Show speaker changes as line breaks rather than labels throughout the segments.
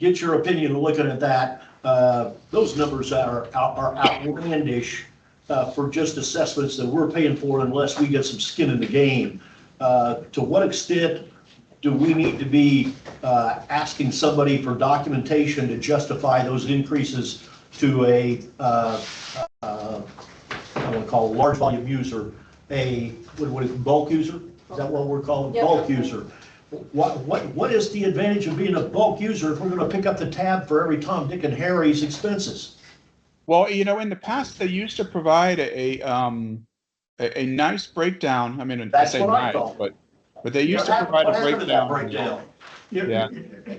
get your opinion looking at that. Uh, Those numbers are out- are outlandish uh, for just assessments that we're paying for unless we get some skin in the game. Uh, To what extent do we need to be uh, asking somebody for documentation to justify those increases to a, uh, uh, I want to call a large volume user, a, what what is it, bulk user? Is that what we're calling,
Yeah.
bulk user? What, what, what is the advantage of being a bulk user if we're gonna pick up the tab for every Tom, Dick, and Harry's expenses?
Well, you know, in the past, they used to provide a, a, um, a, a nice breakdown. I mean, I
That's
say
what I
nice,
thought.
but, but they used
What
to
hap-
provide
what
a
happened to that
breakdown. Yeah.
Yeah,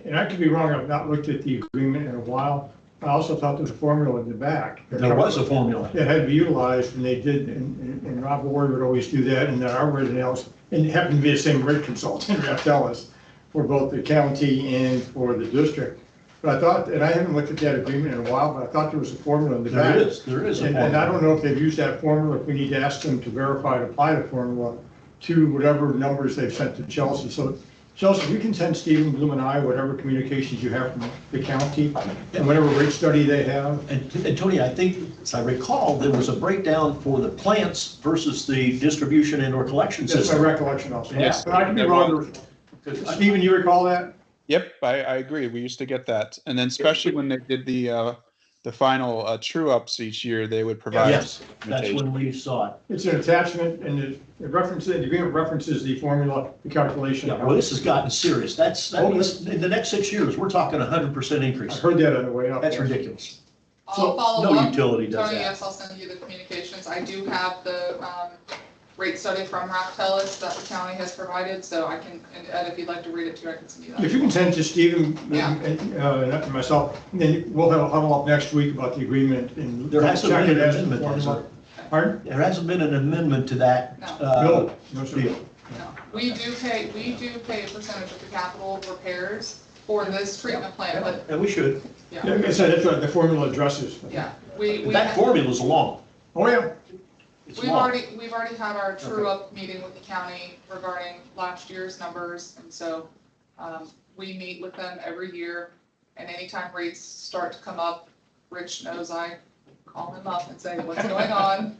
and I could be wrong, I've not looked at the agreement in a while. I also thought there was a formula in the back.
There was a formula.
That had to be utilized, and they did, and, and- and Rob Ward would always do that, and then our resident else, and it happened to be the same rate consultant, Ralph Ellis, for both the county and for the district. But I thought, and I haven't looked at that agreement in a while, but I thought there was a formula in the back.
There is, there is a
And and I
formula.
don't know if they've used that formula, if we need to ask them to verify and apply the formula to whatever numbers they've sent to Chelsea. So Chelsea, we can send Stephen Bloom and I whatever communications you have from the county and whatever rate study they have.
And, and Tony, I think, as I recall, there was a breakdown for the plants versus the distribution and or collection
That's my
system.
recollection also.
Yes.
But I could be wrong. Stephen, you recall that?
Yep, I, I agree. We used to get that. And then especially when they did the, uh, the final, uh, true ups each year, they would provide.
Yes, that's when we saw it.
It's an attachment and it it references, the agreement references the formula, the calculation.
Yeah, well, this has gotten serious. That's, that
Oh,
means, in the next six years, we're talking a hundred percent
I
increase.
heard that on the way up.
That's ridiculous.
I'll
So,
follow
no
up.
utility does
Tony, Uh, yes,
that.
I'll send you the communications. I do have the um, rate study from Raftellus that the county has provided, so I can, and Ed, if you'd like to read it too, I can send you
If
that.
you can send to Stephen
Yeah.
and, uh, and myself, then we'll have a huddle up next week about the agreement and.
There hasn't been an
Check it as
amendment, has there?
Pardon?
There hasn't been an amendment to that,
No.
uh,
No, no, sir.
deal.
No. We do pay, we do pay a percentage of the capital repairs for this treatment plant, but,
And we should.
yeah,
Like I said, that's what the formula addresses.
yeah. We, we,
That formula's long.
Oh, yeah,
It's
we've
long.
already, we've already had our true up meeting with the county regarding last year's numbers, and so um, we meet with them every year, and anytime rates start to come up, Rich knows I call him up and say, what's going on?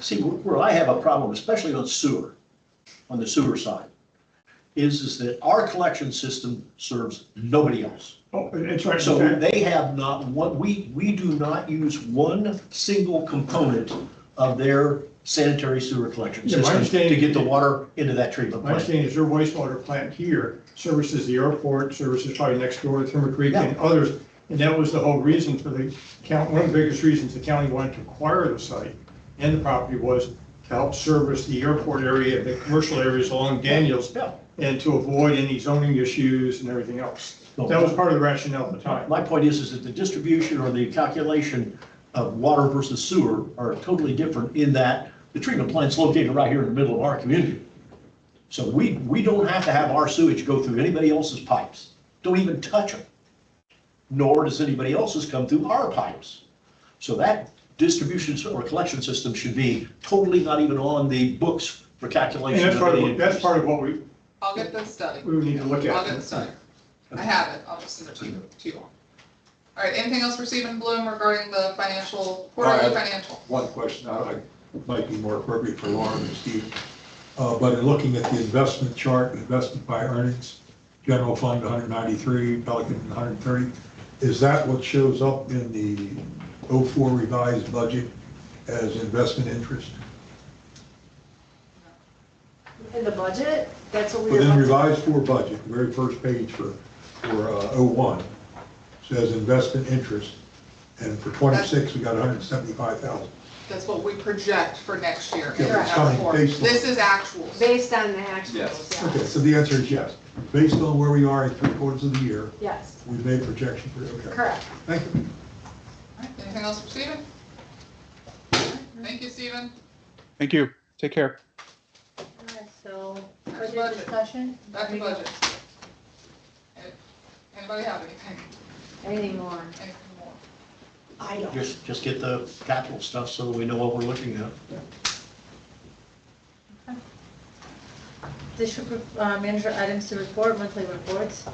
See, where I have a problem, especially on sewer, on the sewer side, is, is that our collection system serves nobody else.
oh, it's right.
So they have not, what, we, we do not use one single component of their sanitary sewer collection
Yeah,
system
my
to
understanding-
get the water into that treatment
My
plant.
understanding is your wastewater plant here services the airport, services probably next door, Timber Creek and others. And that was the whole reason for the county, one of the biggest reasons the county wanted to acquire the site and the property was to help service the airport area, the commercial areas along Daniels
Yeah.
and to avoid any zoning issues and everything else. That was part of the rationale at the time.
My point is, is that the distribution or the calculation of water versus sewer are totally different in that the treatment plant's located right here in the middle of our community. So we, we don't have to have our sewage go through anybody else's pipes. Don't even touch them. Nor does anybody else's come through our pipes. So that distribution or collection system should be totally not even on the books for
And
calculation.
that's
of
part
any
of, that's
increase.
part of what we,
I'll get the study.
we would need to look at.
I'll get the study. I have it, I'll just send it to you, to you all. All right, anything else for Stephen Bloom regarding the financial, quarterly
All right.
financial?
one question, I, I might be more appropriate for Lauren and Steve. Uh, but in looking at the investment chart, investment by earnings, general fund 193, Pelican 130, is that what shows up in the 04 revised budget as investment interest?
In the budget, that's what we were.
Within revised four budget, the very first page for, for uh, 01, says investment interest. And for 26, we got 175,000.
That's what we project for next year.
Yeah,
and
it's
our
coming
report.
based on-
This is actual.
Based on the actuals,
Okay,
yes,
so the answer is yes. Based on where we are in three quarters of the year,
yes,
we made projection for, okay.
correct.
Thank you.
All right, Anything else for Stephen? Thank you, Stephen.
Thank you. Take care.
Alright, So,
That's
further
budget.
discussion?
Back to budget. Anybody have anything,
Anything more?
anything more?
I don't.
Just, just get the capital stuff so we know what we're looking at.
District uh, manager items to report, monthly reports.